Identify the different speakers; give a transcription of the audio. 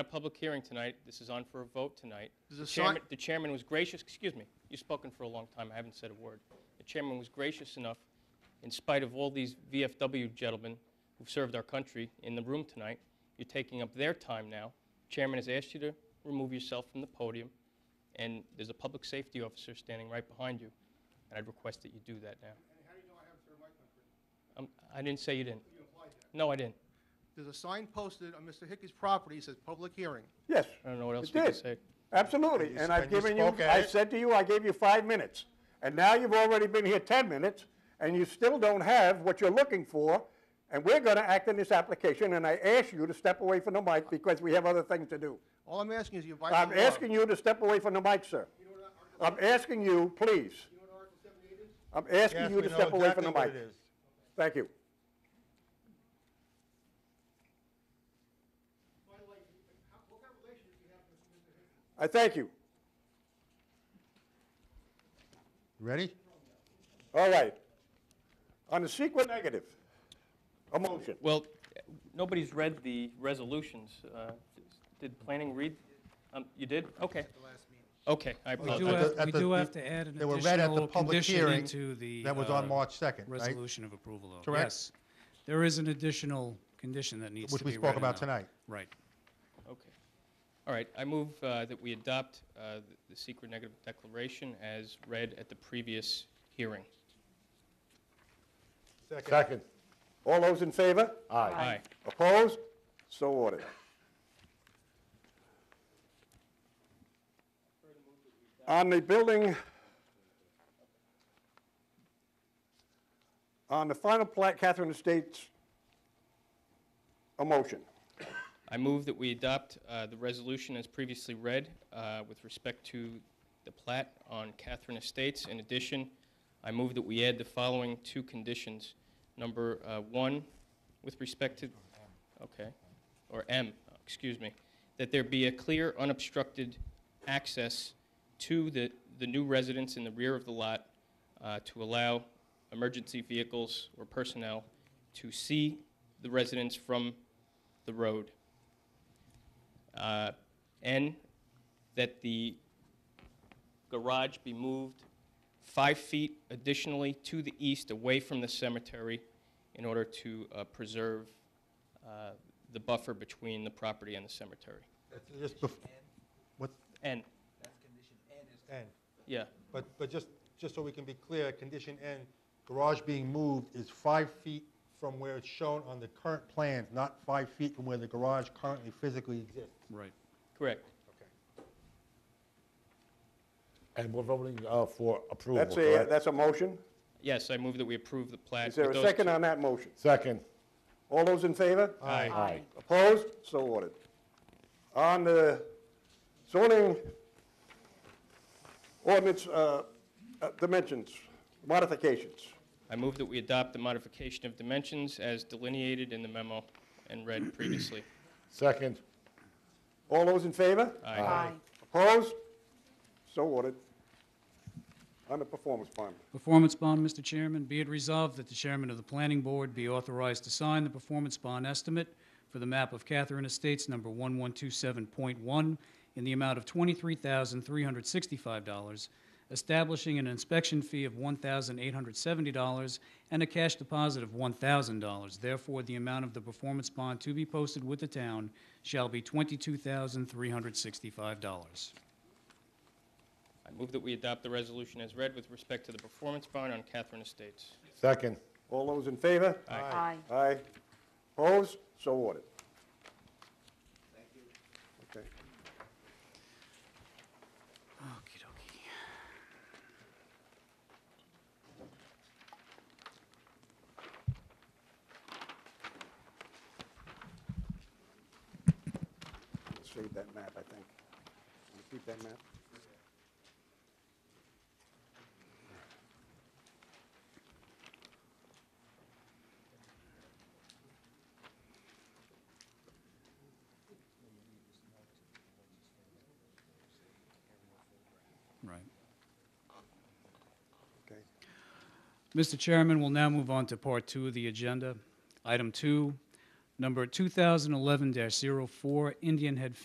Speaker 1: a public hearing tonight. This is on for a vote tonight.
Speaker 2: Is the sign-
Speaker 1: chairman- The chairman was gracious, excuse me, you've spoken for a long time, I haven't said a word. The chairman was gracious enough, in spite of all these VFW gentlemen who've served our country in the room tonight, you're taking up their time now. Chairman has asked you to remove yourself from the podium, and there's a public safety officer standing right behind you, and I'd request that you do that now. Um, I didn't say you didn't. No, I didn't.
Speaker 2: There's a sign posted on Mr. Hickey's property, that says public hearing.
Speaker 3: Yes.
Speaker 1: I don't know what else
Speaker 3: it
Speaker 1: we can
Speaker 3: did.
Speaker 1: say.
Speaker 3: Absolutely,
Speaker 4: And you-
Speaker 3: and I've
Speaker 4: and you
Speaker 3: given you,
Speaker 4: spoke at
Speaker 3: I
Speaker 4: it.
Speaker 3: said to you, I gave you five minutes, and now you've already been here 10 minutes, and you still don't have what you're looking for, and we're going to act on this application, and I ask you to step away from the mic because we have other things to do.
Speaker 2: All I'm asking is you invite
Speaker 3: I'm
Speaker 2: the law.
Speaker 3: asking you to step away from the mic, sir. I'm asking you, please. I'm asking
Speaker 4: Yes,
Speaker 3: you
Speaker 4: we
Speaker 3: to
Speaker 4: know
Speaker 3: step away from the
Speaker 4: exactly what it
Speaker 3: mic.
Speaker 4: is.
Speaker 3: Thank you. I thank you.
Speaker 4: Ready?
Speaker 3: All right. On the secret negative, a motion.
Speaker 1: Well, nobody's read the resolutions. Uh, Did planning read? Um, You did? Okay. Okay, I
Speaker 4: Well,
Speaker 5: do
Speaker 4: at
Speaker 1: apologize.
Speaker 5: have-
Speaker 4: the- at
Speaker 5: we
Speaker 4: the-
Speaker 5: do have to add an
Speaker 4: They were read at the
Speaker 5: additional
Speaker 4: public
Speaker 5: condition
Speaker 4: hearing
Speaker 5: into the,
Speaker 4: That was on
Speaker 5: uh,
Speaker 4: March 2nd, right?
Speaker 5: Resolution of approval, though.
Speaker 4: Correct?
Speaker 5: Yes. There is an additional condition that needs to
Speaker 4: Which we
Speaker 5: be read
Speaker 4: spoke
Speaker 5: in
Speaker 4: about
Speaker 5: the-
Speaker 4: tonight.
Speaker 5: Right.
Speaker 1: Okay. All right, I move uh, that we adopt uh, th- the secret negative declaration as read at the previous hearing.
Speaker 3: Second. All those in favor?
Speaker 1: Aye.
Speaker 3: Opposed? So ordered. On the building, on the final plat, Catherine Estates, a motion.
Speaker 1: I move that we adopt uh, the resolution as previously read uh, with respect to the plat on Catherine Estates. In addition, I move that we add the following two conditions. Number uh, one, with respect to, okay, or M, excuse me, that there be a clear unobstructed access to the, the new residence in the rear of the lot uh, to allow emergency vehicles or personnel to see the residence from the road. Uh, N, that the garage be moved five feet additionally to the east, away from the cemetery, in order to uh, preserve uh, the buffer between the property and the cemetery.
Speaker 4: That's Just bef- what,
Speaker 1: N,
Speaker 4: N,
Speaker 1: yeah,
Speaker 4: but, but just, just so we can be clear, condition N, garage being moved is five feet from where it's shown on the current plans, not five feet from where the garage currently physically exists.
Speaker 5: Right.
Speaker 1: correct.
Speaker 6: And we're voting uh, for approval,
Speaker 3: That's a,
Speaker 6: correct?
Speaker 3: that's a motion.
Speaker 1: Yes, I move that we approve the plat.
Speaker 3: Is there
Speaker 1: with
Speaker 3: a
Speaker 1: those
Speaker 3: second
Speaker 1: two-
Speaker 3: on that motion?
Speaker 6: Second.
Speaker 3: All those in favor?
Speaker 1: Aye.
Speaker 6: Aye.
Speaker 3: Opposed? So ordered. On the zoning ordinance uh, uh, dimensions, modifications.
Speaker 1: I move that we adopt the modification of dimensions as delineated in the memo and read previously.
Speaker 6: Second.
Speaker 3: All those in favor?
Speaker 1: Aye.
Speaker 3: Opposed? So ordered. On the performance bond.
Speaker 5: Performance bond, Mr. Chairman, be it resolved that the chairman of the planning board be authorized to sign the performance bond estimate for the map of Catherine Estates number 1127.1 in the amount of $23,365, establishing an inspection fee of $1,870 and a cash deposit of $1,000. Therefore, the amount of the performance bond to be posted with the town shall be $22,365.
Speaker 1: I move that we adopt the resolution as read with respect to the performance bond on Catherine Estates.
Speaker 6: Second.
Speaker 3: All those in favor?
Speaker 1: Aye.
Speaker 3: Aye. Opposed? So ordered. Thank you. Okay. Let's Save that map, I think. Can you Keep that map.
Speaker 5: Right.
Speaker 3: Okay.
Speaker 5: Mr. Chairman, we'll now move on to Part 2 of the agenda. Item 2, number 2011-04, Indian Head